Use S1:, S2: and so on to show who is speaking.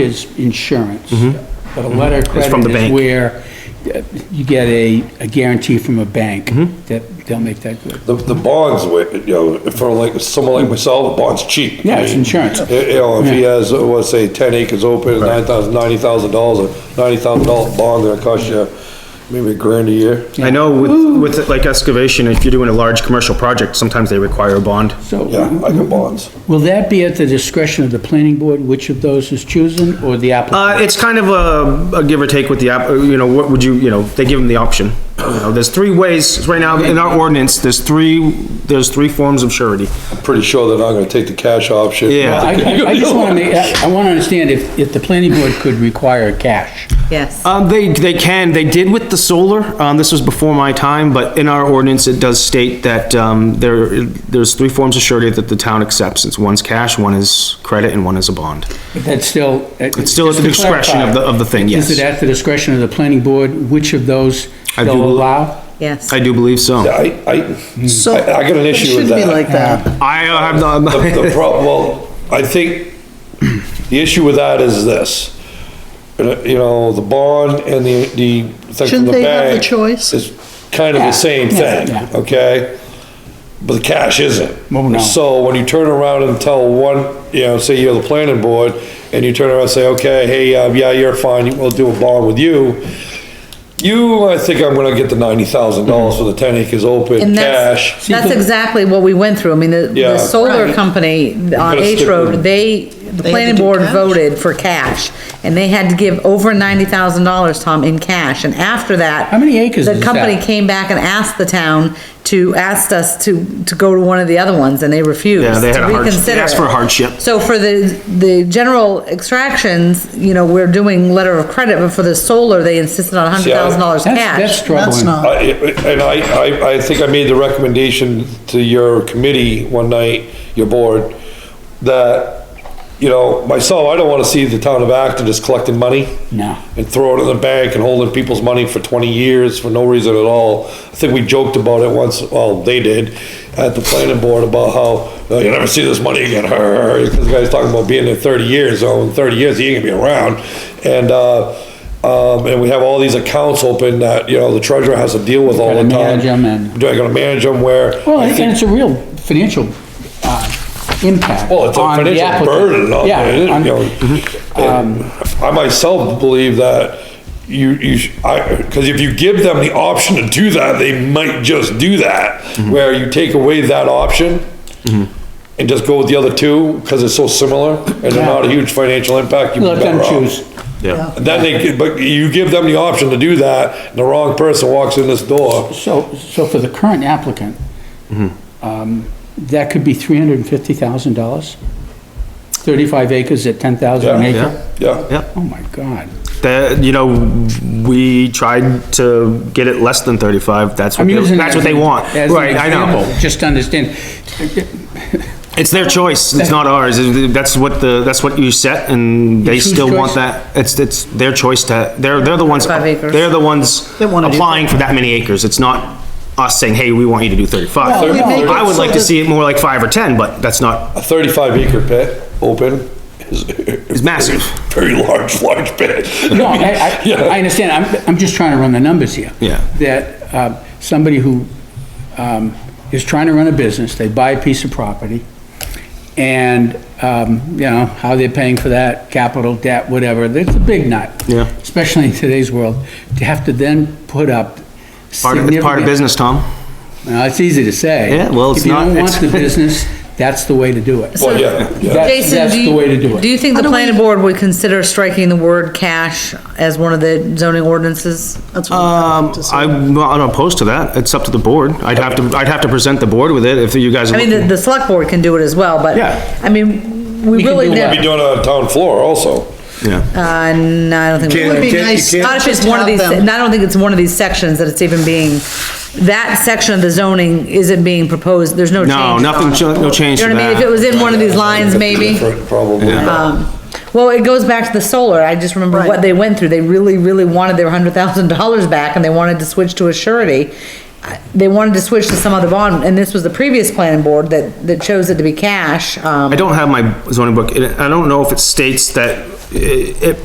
S1: is insurance. But a letter of
S2: Mm-hmm. It's from the
S1: credit is
S2: bank.
S1: where uh, you get a, a guarantee from a bank
S2: Mm-hmm.
S1: that they'll make that good.
S3: The, the bonds, wa- you know, for like, someone like myself, the bond's cheap.
S1: Yeah, it's insurance.
S3: You know, if he has, uh, let's say, ten acres open, nine thousand, ninety thousand dollars, a ninety thousand dollar bond, that'll cost you maybe a grand a year.
S2: I know with, with like excavation, if you're doing a large commercial project, sometimes they require a bond.
S1: So
S3: Yeah, I got bonds.
S1: will that be at the discretion of the planning board, which of those is chosen, or the applicant?
S2: Uh, it's kind of a, a give or take with the app, uh, you know, what would you, you know, they give them the option. You know, there's three ways, right now in our ordinance, there's three, there's three forms of surety.
S3: I'm pretty sure they're not gonna take the cash option.
S2: Yeah.
S1: I, I- I just wanna make, I wanna understand if, if the planning board could require cash.
S4: Yes.
S2: Um, they, they can, they did with the solar, um, this was before my time, but in our ordinance, it does state that, um, there, there's three forms of surety that the town accepts. It's one's cash, one is credit, and one is a bond.
S1: But that's still. uh, It's
S2: still at the discretion of the- of the thing, yes.
S1: Is it at the discretion of the planning board, which of those
S2: I
S1: they'll
S2: do-
S1: allow?
S4: Yes.
S2: I do believe so.
S3: I, I,
S4: So-
S3: I I got an
S4: It
S3: issue with
S4: shouldn't be like
S3: that.
S4: that.
S2: I uh, have not.
S3: The problem, well, I think the issue with that is this. Uh, You know, the bond and the, the thing from the
S4: Shouldn't they have the
S3: bank
S4: choice?
S3: Is kind of the same
S1: Yeah,
S3: thing,
S1: yeah.
S3: okay? But the cash isn't.
S1: Well, no.
S3: So when you turn around and tell one, you know, say you're the planning board, and you turn around and say, okay, hey, uh, yeah, you're fine, we'll do a bond with you. You, I think I'm gonna get the ninety thousand dollars
S1: Mm-hmm.
S3: for the ten acres open
S4: And
S3: cash.
S4: that's, that's exactly what we went through. I mean, the,
S3: Yeah.
S4: the solar
S1: Right.
S4: company on
S3: gotta
S4: H
S3: stick
S4: Road,
S3: with-
S4: they, the
S5: had
S4: planning
S5: to do
S4: board
S5: cash?
S4: voted for cash. And they had to give over ninety thousand dollars, Tom, in cash. And after that.
S1: How many acres is
S4: The
S1: that?
S4: company came back and asked the town to, asked us to, to go to one of the other ones and they refused.
S2: Yeah, they had a
S4: to
S2: hardship. They
S4: reconsider
S2: asked for
S4: it.
S2: hardship.
S4: So for the, the general extractions, you know, we're doing letter of credit, but for the solar, they insisted on hundred thousand dollars
S1: That's, that's
S4: cash.
S5: That's
S1: troubling.
S5: not.
S3: I- And I, I, I think I made the recommendation to your committee one night, your board, that, you know, myself, I don't wanna see the town of Acton just collecting money.
S1: No.
S3: And throwing it in the bank and holding people's money for twenty years for no reason at all. I think we joked about it once, well, they did, at the planning board about how, "Oh, you'll never see this money again, because the guy's talking about being there thirty years, so in thirty years, he ain't gonna be around. And, uh, um, and we have all these accounts open that, you know, the treasurer has to deal with all
S1: Gotta
S3: the time.
S1: manage 'em and-
S3: Do I gotta manage them where?
S1: Well,
S3: I
S1: and
S3: think-
S1: it's a real financial, uh, impact
S3: Well, it's a
S1: on the
S3: financial
S1: applicant.
S3: burden on,
S1: Yeah,
S3: it, you
S1: on- Mm-hmm. Um,
S3: know. and I myself believe that you, you, sh- I, because if you give them the option to do that, they might just do that.
S1: Mm-hmm.
S3: Where you take away that option and just go with the other two, because it's so similar and they're not a huge financial impact, you'd be
S1: Let them
S3: better off.
S1: choose.
S2: Yeah.
S3: And Then they, could- but you give them the option to do that, and the wrong person walks in this door.
S1: So, so for the current applicant,
S3: Mm-hmm.
S1: um, that could be three hundred and fifty thousand dollars? Thirty-five acres at ten thousand an
S3: Yeah,
S1: acre?
S3: Yeah.
S2: Yeah.
S1: Oh my God.
S2: That, you know, we tried to get it less than thirty-five, that's
S1: I
S2: what,
S1: mean,
S2: they-
S1: as an-
S2: that's what they want.
S1: as an
S2: Right, I know.
S1: example, Just to understand,
S2: It's their choice, it's not ours, that's what the, that's what you set, and they
S1: It's whose
S2: still want
S1: choice?
S2: that. It's, it's their choice to, they're, they're the ones,
S4: Five acres.
S2: they're the ones
S5: They wanna do
S2: applying for that many acres, it's not us saying, hey, we want you to do thirty-five.
S3: Well, we make it
S2: I would
S5: so
S2: like to
S5: that-
S2: see it more like five or ten, but that's not,
S3: A thirty-five acre pit, open, is.
S2: it's massive.
S3: Very large, large pit.
S1: no, I, I, I understand, I'm, I'm just trying to run the numbers here.
S2: Yeah.
S1: That, um, somebody who, um, is trying to run a business, they buy a piece of property, and, um, you know, how they're paying for that, capital debt, whatever, that's a big nut.
S2: Yeah.
S1: Especially in today's world, to have to then put up
S2: Part of, it's part of
S1: significant-
S2: business, Tom.
S1: Now, it's easy to say.
S2: Yeah, well, it's not-
S1: If you don't
S2: it's-
S1: want the business, that's the way to do it.
S3: Well, yeah, yeah.
S1: That's-
S4: Jason,
S1: that's
S4: do
S1: the way to do
S4: you,
S1: it.
S4: do you think
S5: How
S4: the
S5: do we-
S4: planning board would consider striking the word cash as one of the zoning ordinances?
S5: That's what I
S2: Um,
S5: have to say.
S2: I'm not opposed to that. It's up to the board. I'd have to, I'd have to present the board with it if you guys. are
S4: I mean, the,
S2: looking-
S4: the select board can do it as well, but,
S2: Yeah.
S4: I mean, we
S1: We can
S4: really,
S1: do
S3: Be
S4: never-
S1: what?
S3: doing it on town floor also.
S2: Yeah,
S4: uh, no, I don't think. we
S5: It would be nice.
S4: Not if it's
S5: just
S4: one of
S5: have
S4: these,
S5: them-
S4: and I don't think it's one of these sections that it's even being, that section of the zoning isn't being proposed, there's no change.
S2: No, nothing,
S4: You
S2: cha- no change
S4: know
S2: to
S4: what I mean? If it
S2: that.
S4: was in one of these lines, maybe.
S3: Probably.
S4: Um, Well, it goes back to the solar. I just remember what
S5: Right.
S4: they went through. They really, really wanted their hundred thousand dollars back and they wanted to switch to a surety. I- They wanted to switch to some other bond and this was the previous planning board that, that chose it to be cash. Um,
S2: I don't have my zoning book. and I don't know if it states that it, it